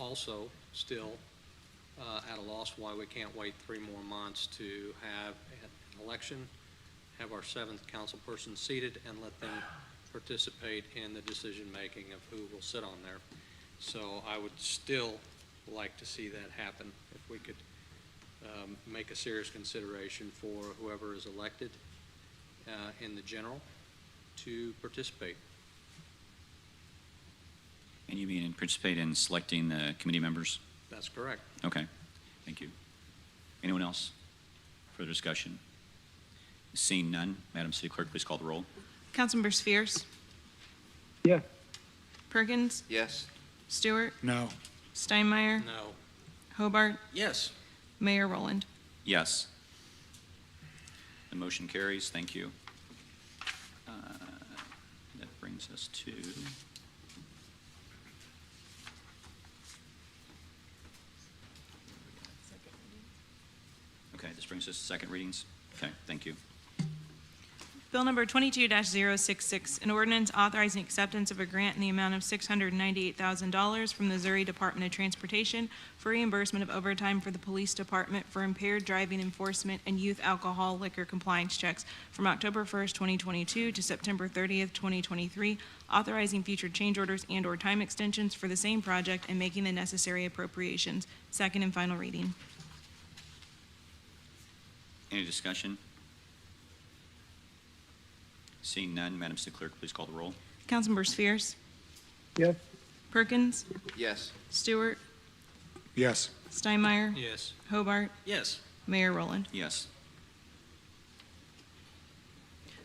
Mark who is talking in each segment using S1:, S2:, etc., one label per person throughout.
S1: also still uh, at a loss why we can't wait three more months to have an election, have our seventh councilperson seated, and let them participate in the decision-making of who will sit on there. So I would still like to see that happen, if we could um, make a serious consideration for whoever is elected uh, in the general to participate.
S2: And you mean participate in selecting the committee members?
S1: That's correct.
S2: Okay, thank you. Anyone else for the discussion? Seeing none, Madam City Clerk, please call the roll.
S3: Councilmember Spheres.
S4: Yes.
S3: Perkins.
S5: Yes.
S3: Stewart.
S4: No.
S3: Steinmeier.
S1: No.
S3: Hobart.
S1: Yes.
S3: Mayor Rowland.
S2: Yes. The motion carries, thank you. Uh, That brings us to... Okay, this brings us to second readings. Okay, thank you.
S3: Bill number 22-066, an ordinance authorizing acceptance of a grant in the amount of $698,000 from the Missouri Department of Transportation for reimbursement of overtime for the Police Department for impaired driving enforcement and youth alcohol liquor compliance checks from October 1st, 2022 to September 30th, 2023, authorizing future change orders and/or time extensions for the same project and making the necessary appropriations. Second and final reading.
S2: Any discussion? Seeing none, Madam City Clerk, please call the roll.
S3: Councilmember Spheres.
S4: Yes.
S3: Perkins.
S5: Yes.
S3: Stewart.
S4: Yes.
S3: Steinmeier.
S1: Yes.
S3: Hobart.
S1: Yes.
S3: Mayor Rowland.
S2: Yes.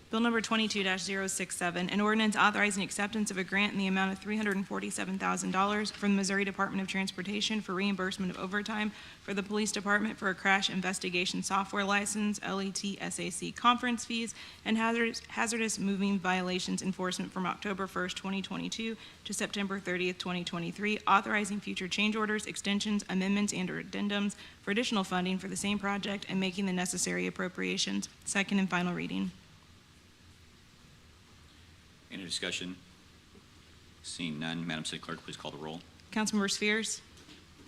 S3: Bill number 22-067, an ordinance authorizing acceptance of a grant in the amount of $347,000 from the Missouri Department of Transportation for reimbursement of overtime for the Police Department for a crash investigation software license, E LET SAC conference fees, and hazardous hazardous moving violations enforcement from October 1st, 2022 to September 30th, 2023, authorizing future change orders, extensions, amendments, and/or addendums for additional funding for the same project and making the necessary appropriations. Second and final reading.
S2: Any discussion? Seeing none, Madam City Clerk, please call the roll.
S3: Councilmember Spheres,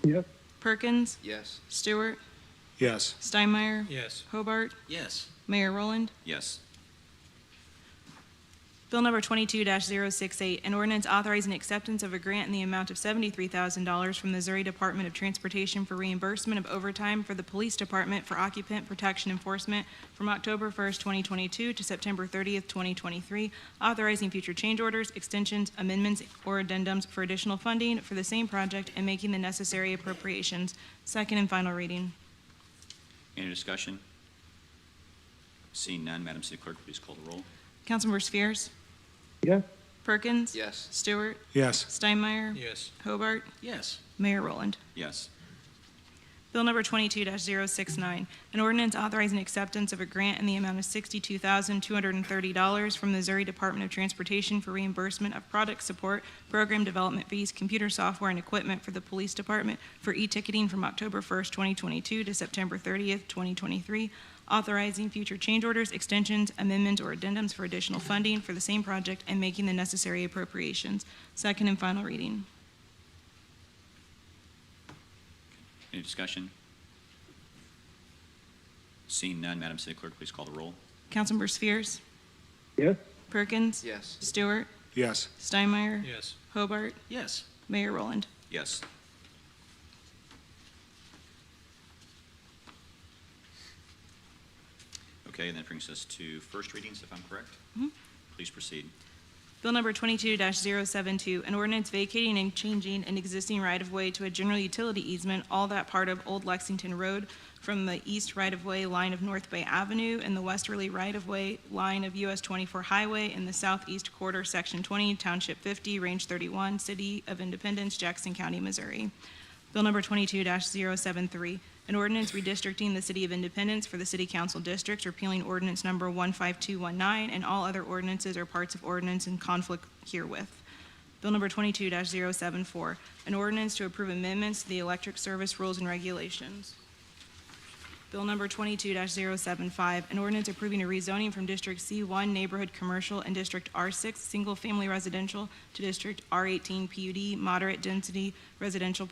S4: Yes.
S3: Perkins,
S5: Yes.
S3: Stewart,
S4: Yes.
S3: Steinmeier,
S1: Yes.
S3: Hobart,
S1: Yes.
S3: Mayor Rowland.
S2: Yes.
S3: Bill number 22-068, an ordinance authorizing acceptance of a grant in the amount of $73,000 from the Missouri Department of Transportation for reimbursement of overtime for the Police Department for occupant protection enforcement from October 1st, 2022 to September 30th, 2023, authorizing future change orders, extensions, amendments, or addendums for additional funding for the same project and making the necessary appropriations. Second and final reading.
S2: Any discussion? Seeing none, Madam City Clerk, please call the roll.
S3: Councilmember Spheres,
S4: Yes.
S3: Perkins.
S5: Yes.
S3: Stewart.
S4: Yes.
S3: Steinmeier.
S1: Yes.
S3: Hobart.
S1: Yes.
S3: Mayor Rowland.
S2: Yes.
S3: Bill number 22-069, an ordinance authorizing acceptance of a grant in the amount of $62,230 from the Missouri Department of Transportation for reimbursement of product support, program development fees, computer software, and equipment for the Police Department for e-ticketing from October 1st, 2022 to September 30th, 2023, authorizing future change orders, extensions, amendments, or addendums for additional funding for the same project and making the necessary appropriations. Second and final reading.
S2: Any discussion? Seeing none, Madam City Clerk, please call the roll.
S3: Councilmember Spheres,
S4: Yes.
S3: Perkins.
S5: Yes.
S3: Stewart.
S4: Yes.
S3: Steinmeier.
S1: Yes.
S3: Hobart.
S1: Yes.
S3: Mayor Rowland.
S2: Yes. Okay, and that brings us to first readings, if I'm correct. Please proceed.
S3: Bill number 22-072, an ordinance vacating and changing an existing right-of-way to a general utility easement, all that part of Old Lexington Road from the east right-of-way line of North Bay Avenue and the westerly right-of-way line of US 24 Highway in the southeast quarter, Section 20, Township 50, Range 31, City of Independence, Jackson County, Missouri. Bill number 22-073, an ordinance redistricting the City of Independence for the City Council Districts, repealing ordinance number 15219 and all other ordinances or parts of ordinance in conflict herewith. Bill number 22-074, an ordinance to approve amendments to the electric service rules and regulations. Bill number 22-075, an ordinance approving a rezoning from District C1 Neighborhood Commercial and District R6 Single Family Residential to District R18 PUD Moderate Density Residential